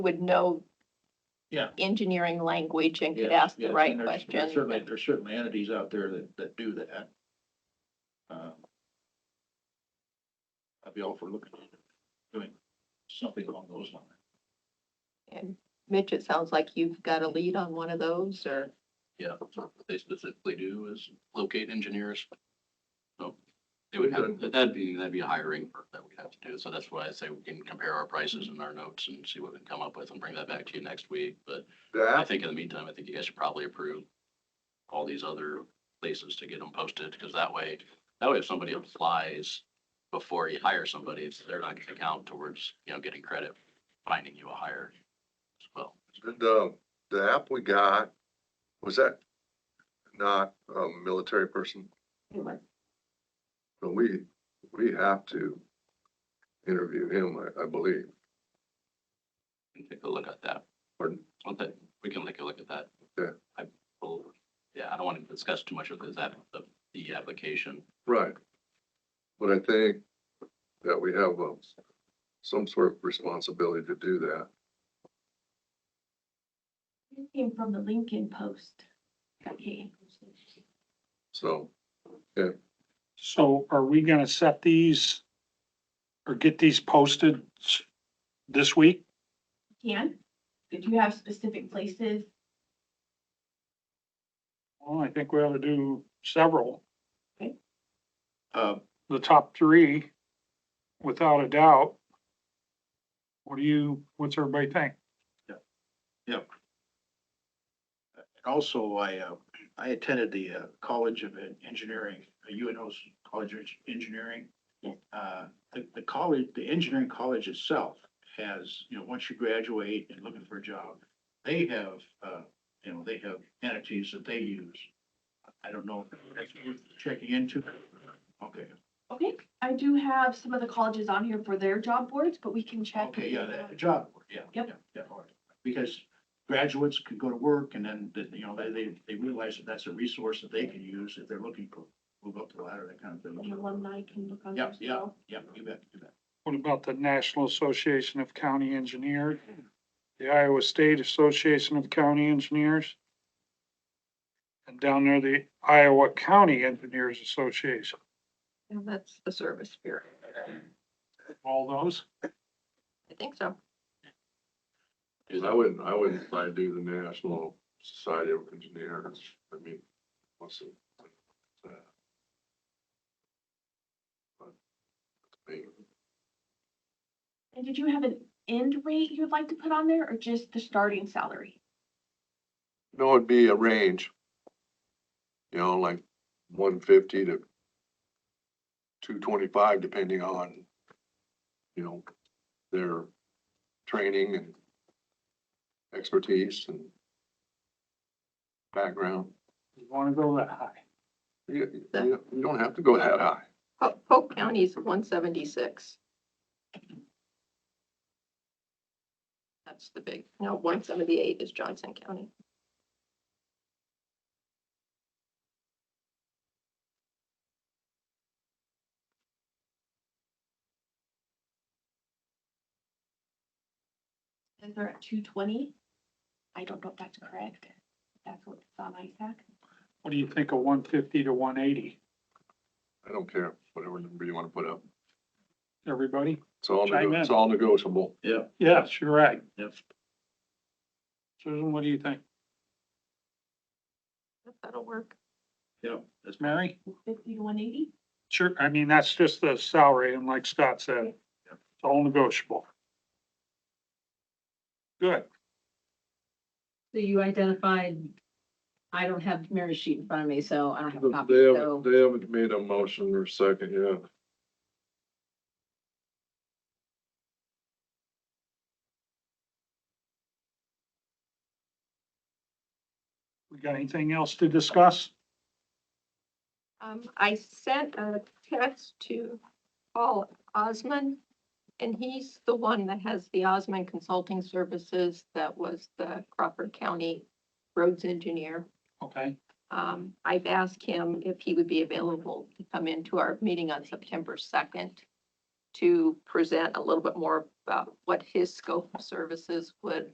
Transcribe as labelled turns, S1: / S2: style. S1: would know
S2: Yeah.
S1: engineering language and could
S2: Yes,
S1: ask the
S2: yes, and
S1: right
S2: there's- there's
S1: questions.
S2: Certainly, there's certainly entities out there that, that do that. Uh, I'd be all for looking at doing something along those lines.
S1: And Mitch, it sounds like you've got a lead on one of those or,
S3: Yeah, so what they specifically do is locate engineers. So they would have, that'd be, that'd be a hiring perk that we'd have to do. So that's why I say we can compare our prices and our notes and see what we can come up with and bring that back to you next week. But I
S4: That,
S3: think in the meantime, I think you guys should probably approve all these other places to get them posted, because that way, that way if somebody applies before you hire somebody, it's- they're not gonna count towards, you know, getting credit, finding you a hire as well.
S4: the, the app we got, was that not a military person? But we, we have to interview him, I, I believe.
S3: can take a look at that.
S4: Pardon?
S3: Well, that- we can take a look at that.
S4: Yeah.
S3: I will, yeah, I don't want to discuss too much of this, app- the, the application.
S4: Right. But I think that we have, um, some sort of responsibility to do that.
S5: It came from the Lincoln Post. Okay.
S4: So
S6: So are we gonna set these or get these posted s- this week?
S5: Can, did you have specific places?
S6: Well, I think we ought to do several,
S2: Um,
S6: the top three, without a doubt. What do you, what's everybody think?
S2: And also, I, uh, I attended the uh, College of Engineering, uh, UNO's College of Engineering.
S5: Yeah.
S2: Uh, The, the college, the engineering college itself has, you know, once you graduate and looking for a job, they have, uh, you know, they have entities that they use. I don't know if that's worth checking into. Okay,
S5: Okay, I do have some of the colleges on here for their job boards, but we can check.
S2: okay, yeah, that job, board, yeah.
S5: Yep.
S2: yeah, yeah, all right. Because graduates could go to work and then, that, you know, they, they, they realize that that's a resource that they can use if they're looking for, move up the ladder, that kind of
S5: And
S2: thing.
S5: alumni can look on there
S2: Yeah,
S5: as
S2: yeah,
S5: well.
S2: yeah, you bet, you bet.
S6: What about the National Association of County Engineers? The Iowa State Association of County Engineers? And down there, the Iowa County Engineers Association,
S1: and that's the service bureau.
S6: all those?
S1: I think so.
S3: Do
S4: I
S3: that.
S4: wouldn't, I wouldn't try to do the National Society of Engineers. I mean, what's it? that? But, I mean,
S5: And did you have an end rate you'd like to put on there or just the starting salary?
S4: No, it'd be a range. You know, like one fifty to two twenty-five, depending on, you know, their training and expertise and background.
S6: You wanna go that high?
S4: You, you you don't have to go that high.
S1: Po- Polk County's one seventy-six. That's the big, no, one seventy-eight is Johnson County.
S5: Is there at two twenty? I don't know if that's correct. That's what's on ISAC.
S6: What do you think of one fifty to one eighty,
S4: I don't care, whatever number you wanna put up.
S6: everybody?
S4: It's all, nego-
S6: Chime in.
S4: it's all negotiable.
S2: Yeah,
S6: Yes, you're right.
S2: Yep.
S6: Susan, what do you think?
S1: That'll work.
S2: yeah, that's my,
S6: Mary?
S5: Fifty to one eighty?
S6: Sure, I mean, that's just the salary, and like Scott said, it's all negotiable. Good,
S7: So you identified, I don't have Mary's sheet in front of me, so I don't have a copy,
S4: They haven't,
S7: so
S4: they haven't made a motion or second yet.
S6: we got anything else to discuss?
S1: Um, I sent a text to Paul Osman, and he's the one that has the Osman Consulting Services that was the Crawford County roads engineer.
S6: Okay,
S1: Um, I've asked him if he would be available to come into our meeting on September second. to present a little bit more about what his scope of services would